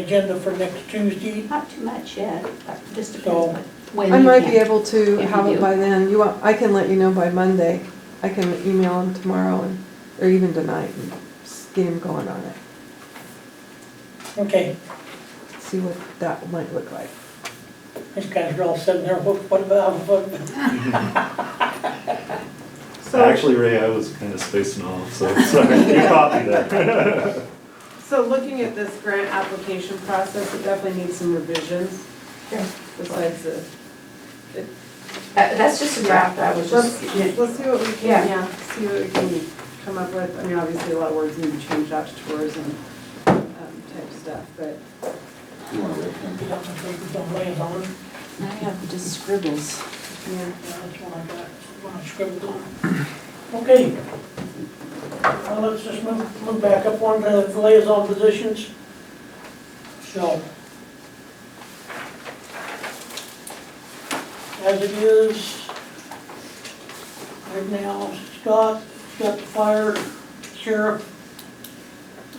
agenda for next Tuesday. Not too much yet, but just So- depends what- when I you might can. be able to if you have do. it by then. You want, I can let you know by Monday. I can email him tomorrow and, or even tonight and s- get him going on it. Okay, See what that might look like. these guys are all sitting there, what, what about, what? So, Actually, Ray, I was kind of spacing off, so sorry, you caught me there. so looking at this grant application process, it definitely needs some revisions besides the. That- Uh, That's just a draft, I was Let's, just, let's see what we Yeah. can, yeah, see what we can come up with. I mean, obviously, a lot of words need to change out to tourism um, type stuff, but You want to rip them? Don't lay it on. I have just scribbles. yeah. Yeah, that's what I got, what I scribbled on. Okay. Well, let's just move, move back up on the liaison positions. So. As it is, right now, Scott, got the fire, sheriff,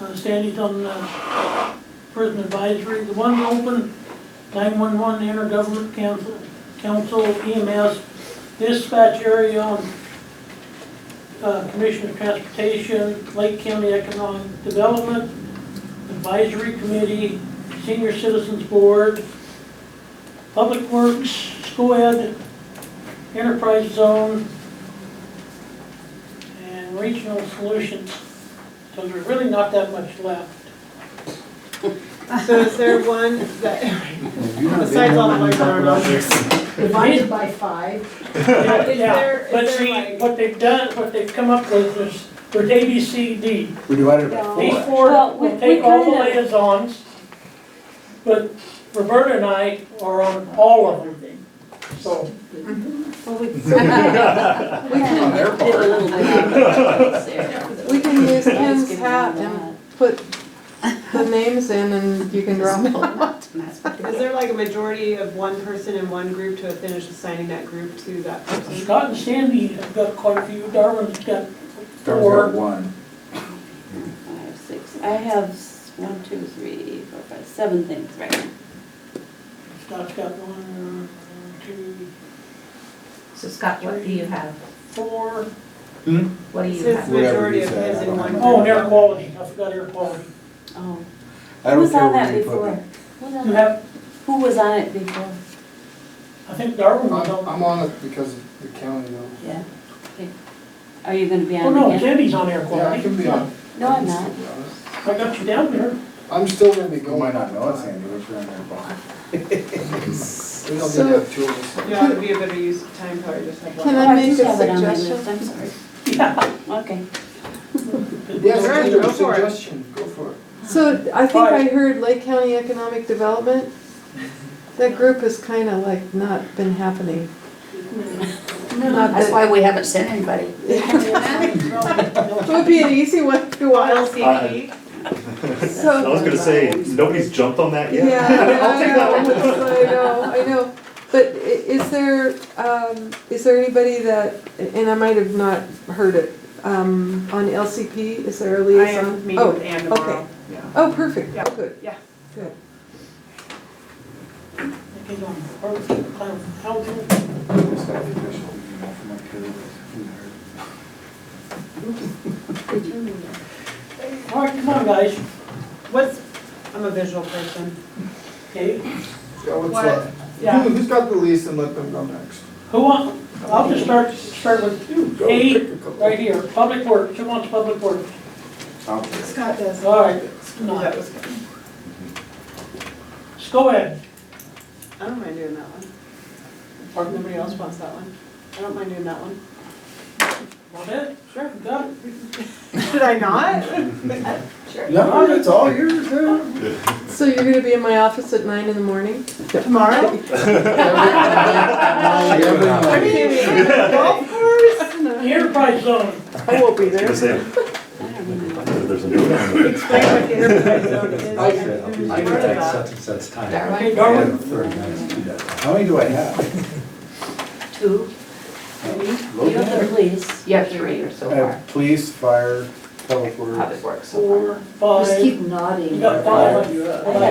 uh, Sandy's on the prison advisory. The one's open, nine-one-one, intergovernmental council, council EMS, dispatch area on uh, Commission of Transportation, Lake County Economic Development, Advisory Committee, Senior Citizens Board, Public Works, School Ed, Enterprise Zone, and Regional Solutions. So there's really not that much left. So is there one that, Have you not been besides all the home when ones you that are talk not about here? Divided by five, Yeah, Is there- yeah, is but there see, like- what they've done, what they've come up with is, there's A, B, C, D. this? We divided it by No. four. These actually. four Well, we- will take we all the kinda- liaisons, but Roberta and I are on all of them. So, well, we, We On can, their Did a part. little bit there. we can use I was Ken's giving hat them and put the names in and you can drop that. it. That's what Is there like a majority of one person in one group to have finished assigning that group to that person? Scott and Sandy have got quite a few, Darwin's got There was that four. one. Five, six, I have s- one, two, three, four, five, seven things right now. Scott's got one, two, so Scott, what do you have? four. Hmm? What do It you says have? Whatever majority you of said, his I in don't one have group. it. Oh, and air quality, I forgot air quality. Oh. Who I don't was care on where that you put before? them. Who was on You that- have, Who was on it before? I think Darwin was I'm on, Oh, I'm on it because of the county though. Yeah. Okay. Are you gonna be oh on no, it again? Sandy's on air Yeah, I quality. can be on. No, I'm not. I can still be on it. I got you down there. I'm still gonna be You going. might not know it, all the time. Sandy, but you're on their part. We don't get to So, have two of us. Yeah, it would be a better use of time, probably just have one. Can Oh, I make just a have it on my suggestion? list, I'm sorry. Yeah. Okay. Yes, Sure, it's a go for it. suggestion, go for it. so I think I heard Lake County Economic Development. That group has kind of like not been happening. Not That's that- why we haven't sent anybody. It would be an easy one to watch. LCD? So. I was gonna say, nobody's jumped on that Yeah, yet. I'll take I that one. know, I know, I know. But i- is there, um, is there anybody that, and I might have not heard it, um, on LCP, is there a I liaison? am meeting Oh, with Ann okay. tomorrow. Oh, perfect, Yeah. oh, good, Yeah. good. He's on Harvard Clan Council. I just got the official email from my kid. Who heard? All right, come on, guys. What's, I'm a visual person. Okay, Yeah, What? what's Yeah. that? Who- Who's got the lease and let them go next? who wants, I'll just start, start with Go A, pick a couple. right here, public works, who wants public works? I'll take it. Scott does. All right, That was good. go ahead. I don't mind doing that one. Or if nobody else wants that one. I don't mind doing that one. Want it? Sure. Got it? Should I not? No, it's all yours, yeah. So you're gonna be in my office at nine in the morning? Tomorrow? Are you Every- kidding me? Golf course? The enterprise zone, I won't be I there. was I gonna say, don't even know. there's a new one. Explain what the enterprise zone is. I can- Part I of can take that. such and such time. okay, Darwin, Yeah, Darwin, thirty minutes to do that. How many do I have? two, you have the police. You have three or so I far, have police, fire, public works. public works so far. four, Just five, keep nodding. you got five.